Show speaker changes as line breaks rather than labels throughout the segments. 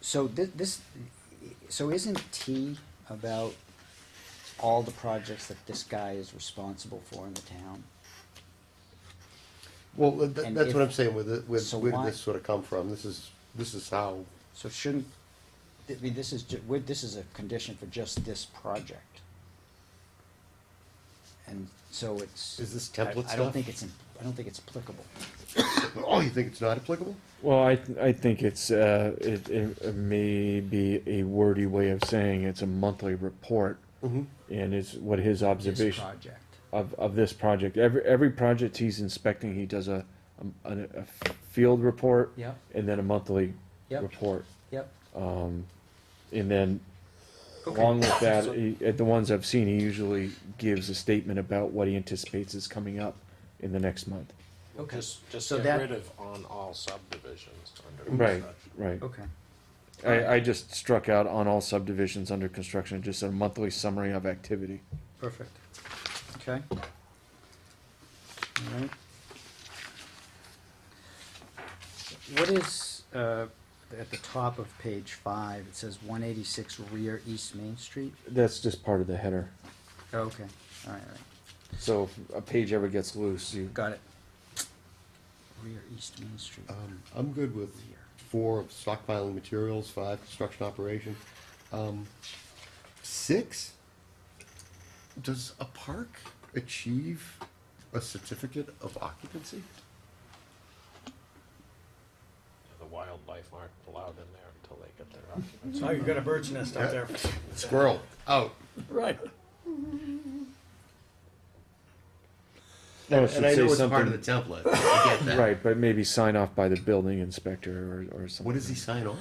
So thi- this, so isn't T about all the projects that this guy is responsible for in the town?
Well, tha-
And
that's what
if-
I'm saying with, the- with,
so
where did
why-
this sort of come from? This is, this is how,
So shouldn't, I mean, this is, ju- we're- this is a condition for just this project. And so it's.
Is this template
I- I don't
stuff?
think it's, im- I don't think it's applicable.
oh, you think it's not applicable?
Well, I, th- I think it's, uh, it, it may be a wordy way of saying it's a monthly report.
Mm-hmm.
And it's what his
This
observation
project.
of, of this project, every, every project he's inspecting, he does a, a, a- a field report.
Yep.
And then a monthly
Yep.
report.
Yep.
And then along with that, he- at the ones I've seen, he usually gives a statement about what he anticipates is coming up in the next month.
Okay.
Just, just
So
get
that-
rid of on all subdivisions under
Right,
construction.
right.
Okay.
I, I just struck out on all subdivisions under construction, just a monthly summary of activity.
Perfect. Okay. All right. What is, uh, at the top of page five, it says one eighty-six rear East Main Street?
That's just part of the header.
Oh, Okay, all right, all right,
So if a page ever gets loose, you,
got it. Rear East Main Street.
Um, I'm good with four of stockpiling materials, five construction operation. Um, six, does a park achieve a certificate of occupancy?
The wildlife aren't allowed in there until they get their occupancy.
Oh, you've got a bird's nest up there.
Squirrel, out.
Right.
no, it
And
should
I know
say
it's part of the
something,
template, I get that.
right, but maybe sign off by the building inspector or, or something.
What does he sign off?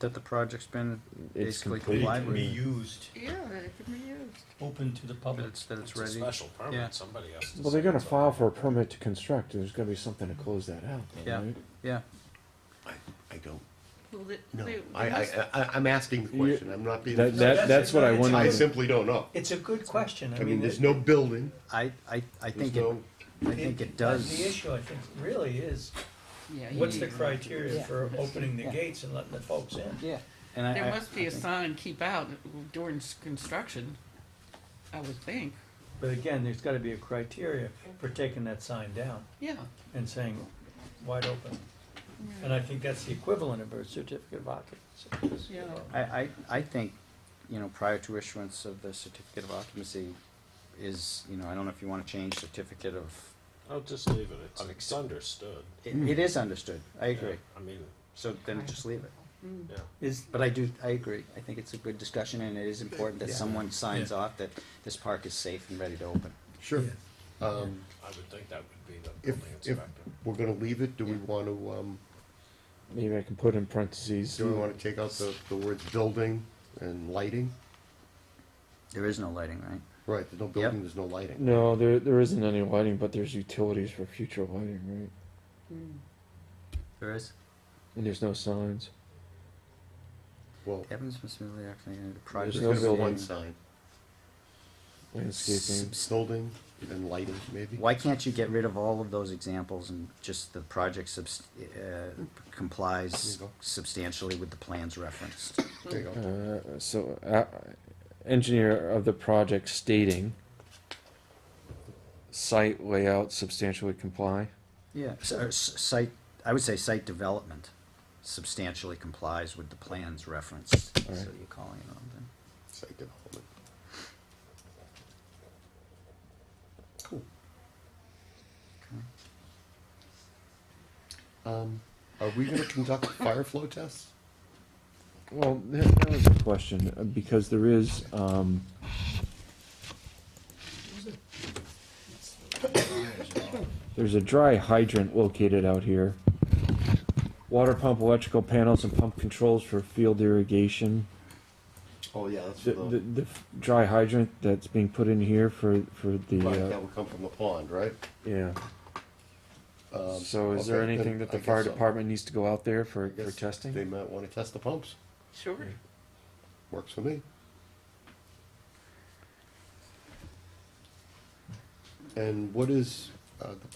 That the project's been
It's
basically
complete.
complied
Can be
with,
used,
Yeah, it could be used.
open to the
that
public.
it's, that it's
It's a
ready.
special
Yeah.
permit, somebody has to.
Well, they're
sign
gonna
it.
file for a permit to construct, there's gonna be something to close that out,
Yeah.
right?
Yeah,
I, I don't
Well, they-
know.
they-
I, uh,
they
I,
must-
I, I'm asking the question, I'm not being.
That, that, that's what I went
I
on,
simply don't know.
It's a good question.
I mean, there's
it-
no building,
I, I, I think it,
There's no-
I think it
that's
does.
The issue, I think, really is,
yeah, you
what's the
need-
criteria
Yeah.
for opening the
Yeah.
gates and letting the folks in?
Yeah, and I.
There
I-
must be
I
a
think-
sign, keep out during s- construction, I would think,
But again, there's gotta be a criteria for taking that sign down
yeah.
and saying, wide open. And I think that's the equivalent of a certificate of occupancy.
Yeah.
I, I, I think, you know, prior to issuance of the certificate of occupancy is, you know, I don't know if you wanna change certificate of,
I'll just leave it, it's,
Of
it's understood.
it, it is understood, I agree.
I mean,
So then just leave it.
yeah,
Is,
But I do, I agree, I think it's a good discussion and it is important that someone signs off that this park is safe and ready to open.
sure.
Yeah.
Um,
I would think that would be the
If,
building
if
inspector.
we're gonna leave it, do we wanna, um,
maybe I can put in parentheses,
do we wanna take out the, the words building and lighting?
There is no lighting, right?
Right, there's no building, there's no lighting.
no, there, there isn't any lighting, but there's utilities for future lighting, right?
There is.
And there's no signs.
Well,
Evans must be really acting in a
there's
project.
no
gonna be one
building.
sign,
Landscaping.
building and lighting, maybe?
Why can't you get rid of all of those examples and just the project subs, uh, complies
There you go.
substantially with the plans referenced?
There you go.
Uh, so, uh, engineer of the project stating, site layout substantially comply.
Yeah, s- uh, s- site, I would say site development substantially complies with the plans referenced, so
Alright.
you're calling it on them.
Site development. Cool. Um, are we gonna conduct fire flow tests?
Well, that, that was a question, uh, because there is, um, there's a dry hydrant located out here. Water pump, electrical panels, and pump controls for field irrigation.
Oh, yeah, that's
The, the, the f- dry hydrant that's being put in here for, for the,
Right, that
uh,
would come from the pond, right? Um,
yeah. So is there
okay,
anything
then
that
I
the
guess
fire
so.
department needs to go out there for,
I
for
guess
testing?
They might wanna test the pumps,
Sure.
works for me. And what is, uh, the